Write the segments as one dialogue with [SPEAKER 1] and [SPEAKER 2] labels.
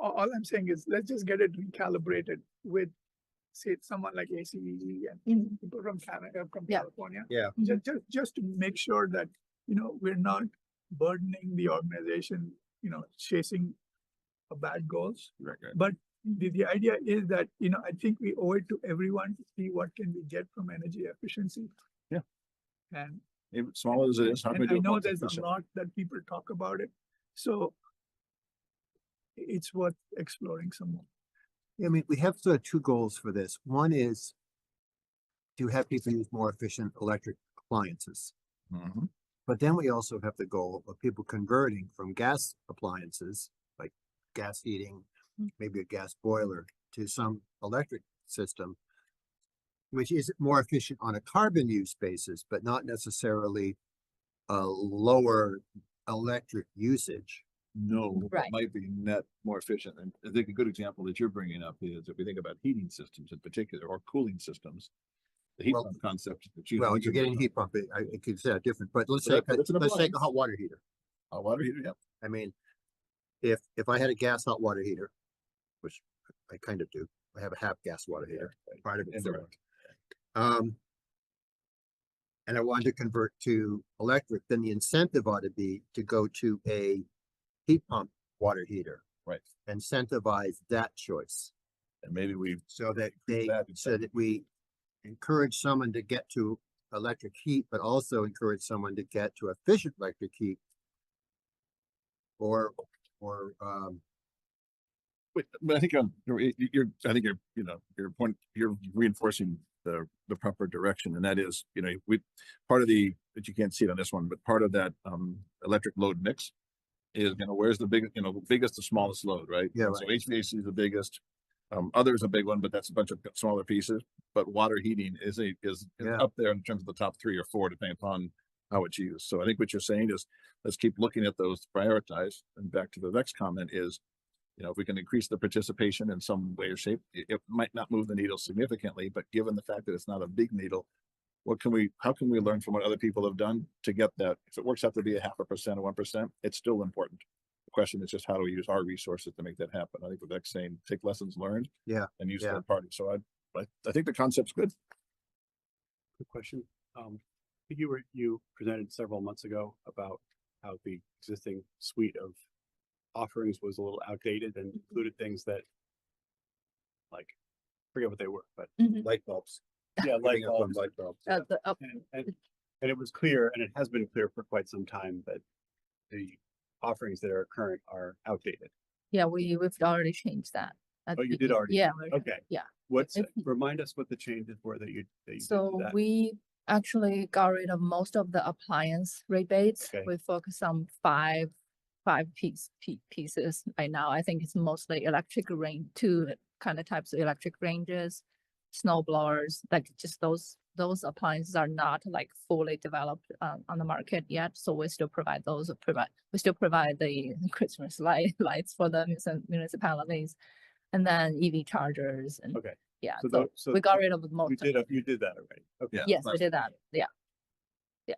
[SPEAKER 1] a- all I'm saying is let's just get it recalibrated with, say, someone like ACVG E and
[SPEAKER 2] Mhm.
[SPEAKER 1] people from Canada, from
[SPEAKER 2] Yeah.
[SPEAKER 1] California.
[SPEAKER 3] Yeah.
[SPEAKER 1] Just, just, just to make sure that, you know, we're not burdening the organization, you know, chasing a bad goals.
[SPEAKER 3] Right, right.
[SPEAKER 1] But the, the idea is that, you know, I think we owe it to everyone to see what can we get from energy efficiency.
[SPEAKER 3] Yeah.
[SPEAKER 1] And,
[SPEAKER 3] Even small as it is, how can we
[SPEAKER 1] and
[SPEAKER 3] do
[SPEAKER 1] I
[SPEAKER 3] it
[SPEAKER 1] know there's a
[SPEAKER 3] 100%?
[SPEAKER 1] lot that people talk about it, so i- it's worth exploring some more.
[SPEAKER 4] I mean, we have sort of two goals for this. One is to have people use more efficient electric appliances. Mm-hmm.
[SPEAKER 3] Mhm.
[SPEAKER 4] But then we also have the goal of people converting from gas appliances, like gas heating,
[SPEAKER 2] Mm.
[SPEAKER 4] maybe a gas boiler, to some electric system, which is more efficient on a carbon use basis, but not necessarily a lower electric usage.
[SPEAKER 3] No, but
[SPEAKER 2] Right.
[SPEAKER 3] might be net more efficient. And I think a good example that you're bringing up is if we think about heating systems in particular or cooling systems. The heat
[SPEAKER 4] Well-
[SPEAKER 3] pump concept. that you-
[SPEAKER 4] Well,
[SPEAKER 3] you
[SPEAKER 4] you're getting
[SPEAKER 3] brought
[SPEAKER 4] heat
[SPEAKER 3] up.
[SPEAKER 4] pump, it- I, it could say different, but let's
[SPEAKER 3] But
[SPEAKER 4] say,
[SPEAKER 3] that- but it's an
[SPEAKER 4] let's take a
[SPEAKER 3] appliance.
[SPEAKER 4] hot water heater.
[SPEAKER 3] Hot water heater, yep.
[SPEAKER 4] I mean, if, if I had a gas hot water heater, which I kind of do, I have a half gas water heater, part of it.
[SPEAKER 3] Indirect.
[SPEAKER 4] Um, and I wanted to convert to electric, then the incentive ought to be to go to a heat pump water heater.
[SPEAKER 3] Right.
[SPEAKER 4] Incentivize that choice
[SPEAKER 3] And maybe we,
[SPEAKER 4] so that
[SPEAKER 3] Increase
[SPEAKER 4] they,
[SPEAKER 3] that
[SPEAKER 4] so that we encourage someone to get to electric heat, but also encourage someone to get to efficient electric heat. Or, or, um,
[SPEAKER 3] but, but I think um, you're, you- you're, I think you're, you know, your point, you're reinforcing the, the proper direction. And that is, you know, we, part of the, that you can't see it on this one, but part of that, um, electric load mix is, you know, where's the big, you know, biggest to smallest load, right?
[SPEAKER 4] Yeah,
[SPEAKER 3] And So HVAC is the biggest. Um, other is a big one, but that's a bunch of smaller pieces. But water heating is a, is is
[SPEAKER 4] Yeah.
[SPEAKER 3] up there in terms of the top three or four, depending upon how it's used. So I think what you're saying is, let's keep looking at those, prioritize. And back to the next comment is, you know, if we can increase the participation in some way or shape, it, it might not move the needle significantly, but given the fact that it's not a big needle, what can we, how can we learn from what other people have done to get that? If it works out to be a half a percent or one percent, it's still important. The question is just how do we use our resources to make that happen? I think Vivek's saying, take lessons learned.
[SPEAKER 4] Yeah,
[SPEAKER 3] And use
[SPEAKER 4] yeah.
[SPEAKER 3] third parties. So I, I, I think the concept's good.
[SPEAKER 5] quick question. Um, I think you were, you presented several months ago about how the existing suite of offerings was a little outdated
[SPEAKER 2] Mm-hmm.
[SPEAKER 5] and included things that like, forget what they were, but
[SPEAKER 2] Mhm.
[SPEAKER 3] Light bulbs.
[SPEAKER 5] yeah, like,
[SPEAKER 3] Light bulbs,
[SPEAKER 5] bulbs.
[SPEAKER 3] light bulbs.
[SPEAKER 2] Uh, the up-
[SPEAKER 5] and, and, and it was clear, and it has been clear for quite some time that the offerings that are current are outdated.
[SPEAKER 2] Yeah, we, we've already changed that. at
[SPEAKER 5] Oh, you
[SPEAKER 2] the
[SPEAKER 5] did
[SPEAKER 2] be-
[SPEAKER 5] already
[SPEAKER 2] Yeah. we-
[SPEAKER 5] Okay.
[SPEAKER 2] yeah.
[SPEAKER 5] What's, uh,
[SPEAKER 2] If-
[SPEAKER 5] remind us what the changes were that you, that you did to
[SPEAKER 2] So
[SPEAKER 5] that.
[SPEAKER 2] we actually got rid of most of the appliance rebates.
[SPEAKER 5] Okay.
[SPEAKER 2] We focus on five, five piece, pe- pieces right now. I think it's mostly electric range, two kind of types of electric ranges. Snow blowers, like just those, those appliances are not like fully developed uh, on the market yet. So we still provide those, provide, we still provide the Christmas light, lights for the munis- municipalities. And then EV chargers and.
[SPEAKER 5] Okay.
[SPEAKER 2] Yeah,
[SPEAKER 5] So
[SPEAKER 2] so
[SPEAKER 5] tho- so
[SPEAKER 2] we got rid of most
[SPEAKER 5] You
[SPEAKER 2] of
[SPEAKER 5] did, a- you did that already. Okay.
[SPEAKER 3] Yeah.
[SPEAKER 2] Yes, we
[SPEAKER 3] last-
[SPEAKER 2] did that. Yeah.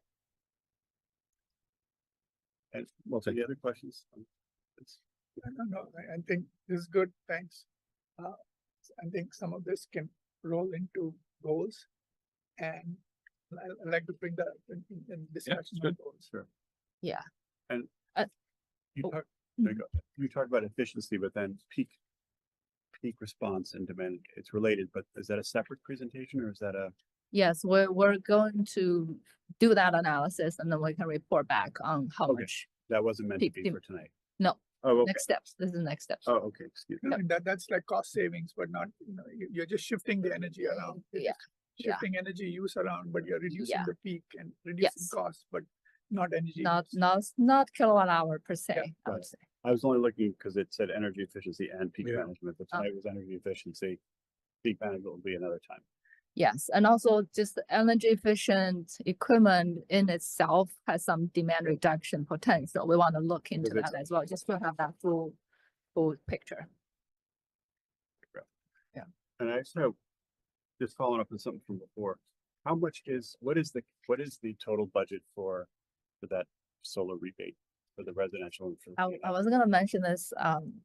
[SPEAKER 5] And
[SPEAKER 3] We'll take
[SPEAKER 5] any other questions? um, It's-
[SPEAKER 1] I don't know, I, I think this is good, thanks. Uh, I think some of this can roll into goals. And I, I like to bring that up in, in- in discussion on
[SPEAKER 3] good.
[SPEAKER 1] goals.
[SPEAKER 5] Sure.
[SPEAKER 2] Yeah.
[SPEAKER 5] And
[SPEAKER 2] Uh,
[SPEAKER 5] you
[SPEAKER 2] oh,
[SPEAKER 5] talked, there you
[SPEAKER 2] mhm.
[SPEAKER 5] go. You talked about efficiency, but then peak, peak response and demand, it's related, but is that a separate presentation or is that a?
[SPEAKER 2] Yes, we're, we're going to do that analysis and then we can report back on how
[SPEAKER 5] Okay.
[SPEAKER 2] much
[SPEAKER 5] That wasn't meant to
[SPEAKER 2] Peak
[SPEAKER 5] be
[SPEAKER 2] dem-
[SPEAKER 5] for tonight?
[SPEAKER 2] No.
[SPEAKER 5] Oh, okay.
[SPEAKER 2] next steps. This is the next steps.
[SPEAKER 5] Oh, okay, excuse me.
[SPEAKER 1] I mean, that, that's like cost savings, but not, you know, you, you're just shifting the energy around. You're
[SPEAKER 2] Yeah,
[SPEAKER 1] just
[SPEAKER 2] yeah.
[SPEAKER 1] Shifting energy use around, but you're reducing
[SPEAKER 2] Yeah.
[SPEAKER 1] the peak and reducing
[SPEAKER 2] Yes.
[SPEAKER 1] costs, but not energy.
[SPEAKER 2] Not,
[SPEAKER 1] use.
[SPEAKER 2] not, not kilowatt hour per se, I
[SPEAKER 5] got
[SPEAKER 2] would
[SPEAKER 5] it.
[SPEAKER 2] say.
[SPEAKER 5] I was only looking because it said energy efficiency and peak
[SPEAKER 3] Yeah.
[SPEAKER 5] management, but
[SPEAKER 2] Oh.
[SPEAKER 5] tonight was energy efficiency. Peak management will be another time.
[SPEAKER 2] Yes, and also just the energy efficient equipment in itself has some demand reduction potential. We want to look into
[SPEAKER 5] it's-
[SPEAKER 2] that as well, just to have that full, full picture.
[SPEAKER 5] And I just have, just following up on something from before, how much is, what is the, what is the total budget for, for that solar rebate for the residential? and for the
[SPEAKER 2] I,
[SPEAKER 5] C&I?
[SPEAKER 2] I was gonna mention this, um,